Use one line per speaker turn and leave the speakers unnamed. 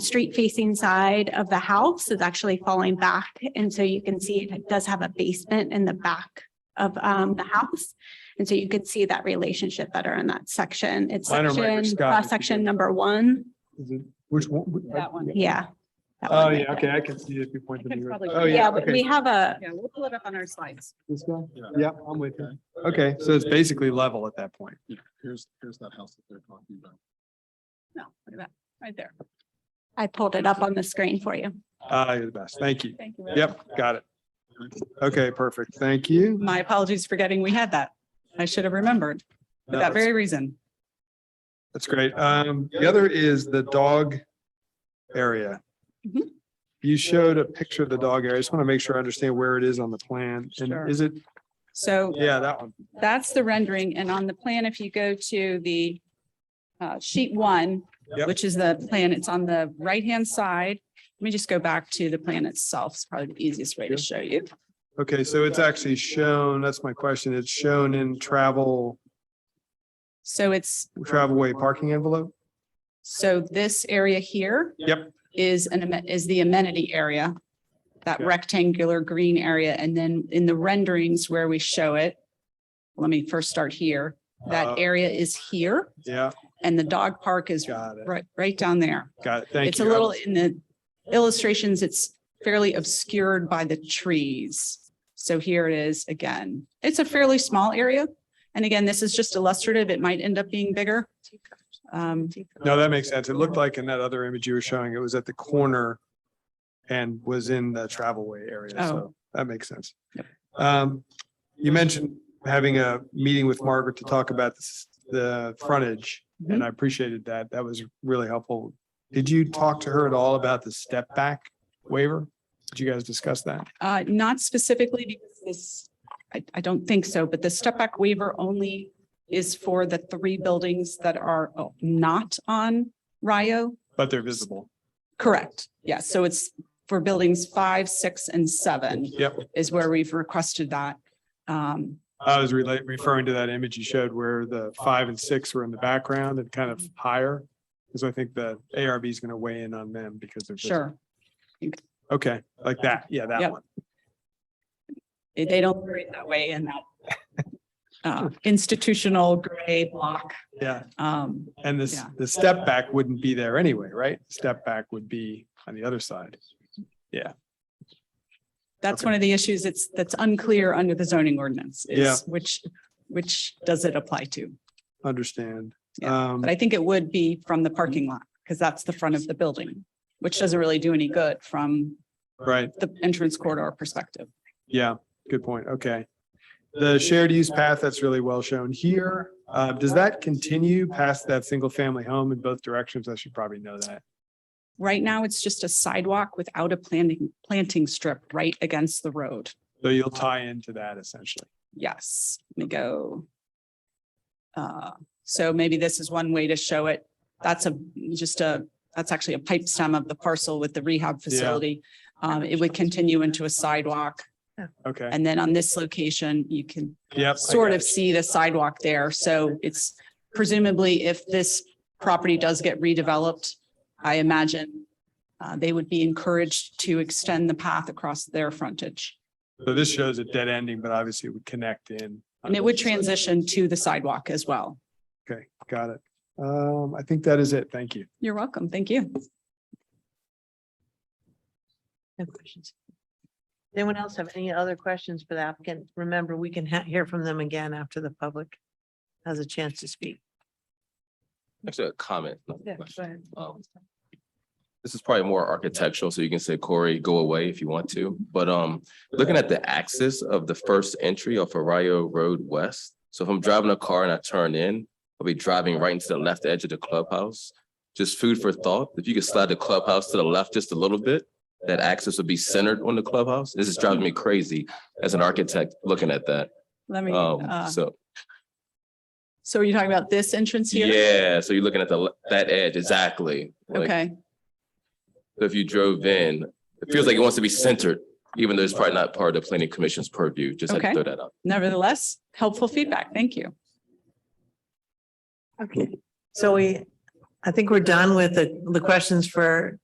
street facing side of the house is actually falling back. And so you can see it does have a basement in the back of um the house. And so you could see that relationship better in that section. It's
Minor minor,
section,
Scott.
cross section number one.
Is it, which one?
That one.
Yeah. that
Oh,
one right
yeah, okay, I can see it if you point to
I
me.
could
right-
probably-
Oh,
there.
yeah,
Yeah, but we
okay.
have a,
Yeah, we'll pull it up on our slides.
This guy? Yeah, I'm with you. Okay, so it's basically level at that point.
Here's, here's that house that they're talking about.
No, look at that, right there.
I pulled it up on the screen for you.
Ah, you're the best. Thank you.
Thank you.
Yep, got it. Okay, perfect. Thank you.
My apologies for getting, we had that. I should have remembered for
No,
that
that's-
very reason.
That's great. Um, the other is the dog area.
Mhm.
You showed a picture of the dog area. I just want to make sure I understand where it is on the plan.
Sure.
And is it,
So
yeah, that one.
that's the rendering. And on the plan, if you go to the uh, sheet one,
Yep.
which is the plan, it's on the right-hand side. Let me just go back to the plan itself. It's probably the easiest way to show you.
Okay, so it's actually shown, that's my question. It's shown in travel,
So it's,
travelway parking envelope?
so this area here
Yep,
is an, amen- is the amenity area. That
Okay.
rectangular green area, and then in the renderings where we show it. Let me first start here.
Uh,
That area is here
yeah,
and the dog park is
got it.
right, right down there.
Got it. Thank you.
It's a little in the illustrations, it's fairly obscured by the trees. So here it is again. It's a fairly small area. And again, this is just illustrative. It might end up being bigger. Um,
No, that makes sense. It looked like in that other image you were showing, it was at the corner and was in the travelway area. So
Oh.
that makes sense. Um, you mentioned having a meeting with Margaret to talk about this- the frontage
Mm-hmm.
and I appreciated that. That was really helpful. Did you talk to her at all about the step back waiver? Did you guys discuss that?
Uh, not specifically because this, I, I don't think so, but the step back waiver only is for the three buildings that are oh, not on Rio.
But they're visible.
Correct. Yeah, so it's for buildings five, six, and seven
Yep.
is where we've requested that. Um,
I was relate, referring to that image you showed where the five and six were in the background and kind of higher. Because I think the ARB is going to weigh in on them because they're. visible.
sure,
Okay, like that. Yeah, that
Yep.
one.
they they don't operate that way in that uh, institutional gray block.
Yeah.
Um,
And this,
Yeah.
the step back wouldn't be there anyway, right? Step back would be on the other side.
That's
Okay.
one of the issues that's, that's unclear under the zoning ordinance. is
Yeah.
Which, which does it apply to?
Understand.
Yeah,
Um,
But I think it would be from the parking lot, because that's the front of the building, which doesn't really do any good from
right.
the entrance corridor perspective.
Yeah, good point. Okay. The shared use path, that's really well shown here. Uh, does that continue past that single family home in both directions? I should probably know that.
Right now, it's just a sidewalk without a planting, planting strip right against the road.
So you'll tie into that essentially.
Yes, let me go. Uh, so maybe this is one way to show it. That's a, just a, that's actually a pipe stem of the parcel with the rehab facility. Um, it would continue into a sidewalk.
Okay.
And then on this location, you can
Yep. I
sort
got
of
it.
see the sidewalk there. So it's presumably if this property does get redeveloped, I imagine uh, they would be encouraged to extend the path across their frontage.
So this shows a dead ending, but obviously it would connect in.
And it would transition to the sidewalk as well.
Okay, got it. Um, I think that is it. Thank you.
You're welcome. Thank you.
No questions. Anyone else have any other questions for the applicant? Remember, we can ha- hear from them again after the public has a chance to speak.
Actually, a comment. not a
Yeah, go
question.
ahead.
Um, This is probably more architectural, so you can say, Corey, go away if you want to. But um, looking at the axis of the first entry off Arroyo Road West. So if I'm driving a car and I turn in, I'll be driving right into the left edge of the clubhouse. Just food for thought. If you could slide the clubhouse to the left just a little bit, that axis would be centered on the clubhouse. This is driving me crazy as an architect looking at that.
Let me,
Oh.
uh,
Um, so,
so are you talking about this entrance here?
yeah, so you're looking at the, le- that edge, exactly. Like,
Okay,
So if you drove in, it feels like it wants to be centered, even though it's probably not part of the planning commission's purview, just had to
Okay.
throw that out.
nevertheless, helpful feedback. Thank you.
Okay. So we, I think we're done with the, the questions for